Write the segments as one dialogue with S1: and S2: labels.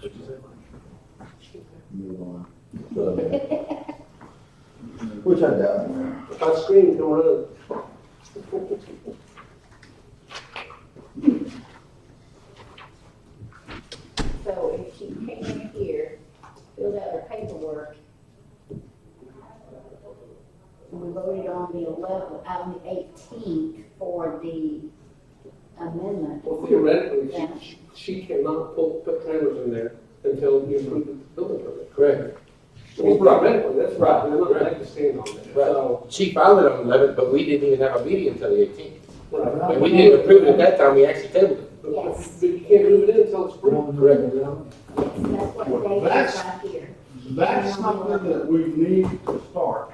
S1: What'd you say, Mike?
S2: move on. Which I doubt.
S1: Hot screen, don't run.
S3: So if she came in here, filled out her paperwork, and we voted on the eleventh, on the eighteenth for the amendment.
S1: Well, theoretically,
S3: Yeah.
S1: she, she cannot pull, put trailers in there until you approve the building permit.
S4: Correct.
S1: Well, theoretically, that's right, and I'm not like to stand on that,
S4: Right.
S1: so.
S4: She filed it on the eleventh, but we didn't even have a meeting until the eighteenth.
S1: Right.
S4: And we didn't approve it at that time, we actually tabled it.
S1: But
S3: Yes.
S1: but you can't move it in until it's approved.
S4: Correct.
S3: Yes, that's what they did
S5: That's-
S3: right here.
S5: That's something that we need to start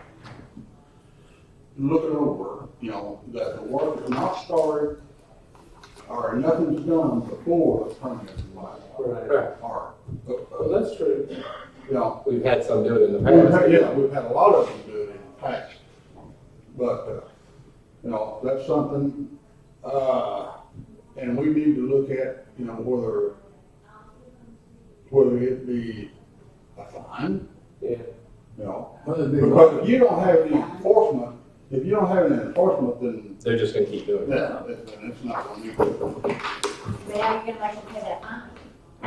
S5: looking over, you know, that the work is not started or nothing's done before the permit is filed.
S1: Right.
S5: Or, uh,
S1: Well,
S5: uh,
S1: that's true.
S5: you know,
S4: We've had some do it in the
S5: we've
S4: past.
S5: had- yeah, we've had a lot of them do it in the past. But, uh, you know, that's something, uh, and we need to look at, you know, whether, whether it be a fine,
S1: Yeah.
S5: you know,
S2: Well,
S5: Because if you don't have any enforcement, if you don't have any enforcement, then,
S4: They're just gonna keep doing it.
S5: yeah, then it's not gonna be good.
S3: Now you're gonna make them pay that uh, fine.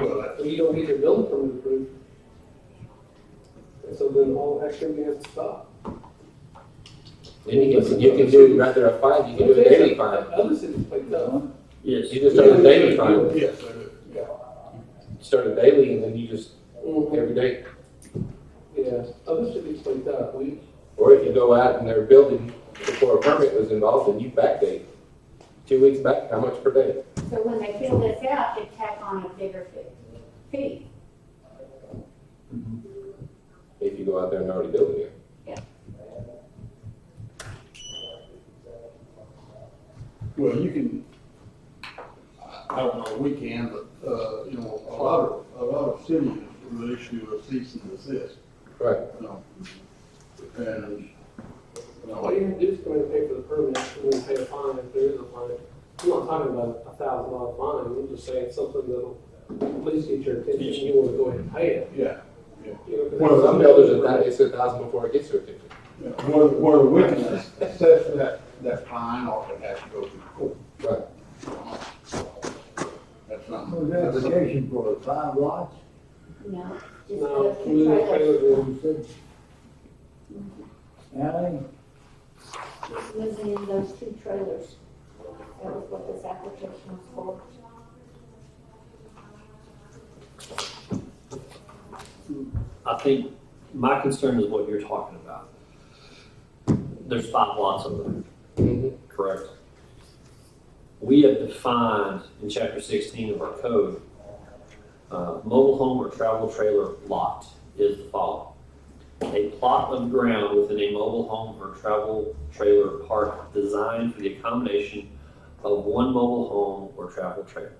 S5: Well,
S1: Well, you don't get your building permit approved. And so then all activity has to stop.
S4: And you can, you can do it right there at five, you can do a daily five.
S1: Other cities like that.
S4: You just start a daily five,
S5: Yes, I do, yeah.
S4: start a daily and then you just,
S1: Mhm.
S4: every day.
S1: Yeah, other cities like that, we,
S4: Or if you go out and they're building before a permit was involved and you backdate. Two weeks back, how much per day?
S3: So when they fill this out, they tack on a bigger fee- fee.
S4: If you go out there and already build it.
S5: Well, you can, I- I don't know, we can, but, uh, you know, a lot of, a lot of cities will issue a cease and desist,
S4: Right.
S5: you know. And, you
S1: all
S5: know,
S1: you have to do is come in and pay for the permit, and then pay a fine if there is a fine. I'm not talking about a thousand dollar fine, I'm just saying something that'll at least get your attention, you wanna go ahead and pay it.
S5: yeah,
S1: You know, 'cause
S5: Well,
S4: Some builders, a thou- it's a thousand before it gets to a fifty.
S5: you know, whether, whether we can assess that, that fine or if it has to go to court.
S4: Right.
S5: That's not.
S2: the application for five lots,
S3: You know, just
S1: No,
S3: those
S1: we
S3: two
S1: didn't pay
S3: trailers,
S1: it.
S2: you said. Alley,
S3: just living in those two trailers. That was what this application was for.
S6: I think my concern is what you're talking about. There's five lots of them,
S4: Mhm.
S6: correct? We have defined in chapter sixteen of our code, uh, mobile home or travel trailer lot is the following. A plot of ground within a mobile home or travel trailer park designed for the accommodation of one mobile home or travel trailer.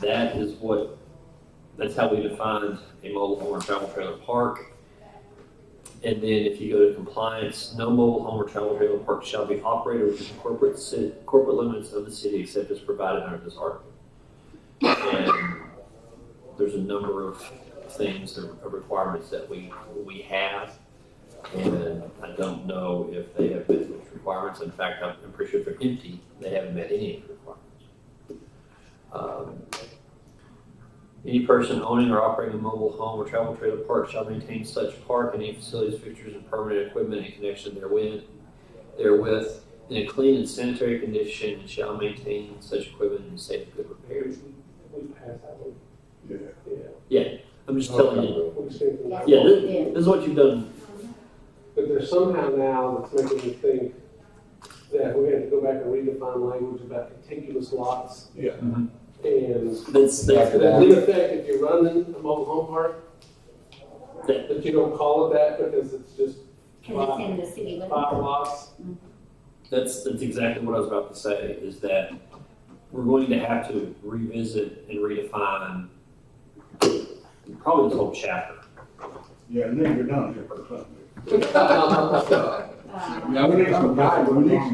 S6: That is what, that's how we defined a mobile home or travel trailer park. And then if you go to compliance, no mobile home or travel trailer park shall be operated within corporate ci- corporate limits of the city except as provided under this article. And there's a number of things, or requirements that we, we have. And I don't know if they have met those requirements. In fact, I'm I'm pretty sure if they're empty, they haven't met any of the requirements. Um, any person owning or operating a mobile home or travel trailer park shall maintain such park and any facilities, fixtures, and permanent equipment in connection therewith, therewith, in a clean and sanitary condition, and shall maintain such equipment in safe and good repair.
S1: Parents, we passed that one,
S5: Yeah.
S1: yeah.
S6: I'm just telling you,
S1: We stand for that.
S3: That's
S6: Yeah,
S3: what we did.
S6: this is what you've done.
S1: But there's somehow now that's making me think that we have to go back and redefine language about contiguous lots.
S5: Yeah.
S6: Mhm.
S1: And
S6: That's, that's,
S4: After that.
S1: that in effect, if you're running a mobile home park,
S6: Yeah.
S1: that you don't call it that because it's just
S3: Cause it's in the city limits.
S1: five lots.
S6: that's, that's exactly what I was about to say, is that we're going to have to revisit and redefine probably this whole chapter.
S5: Yeah, and then you're done here for something.
S1: Well,
S3: Uh,
S5: Now, we need some guidance, we need some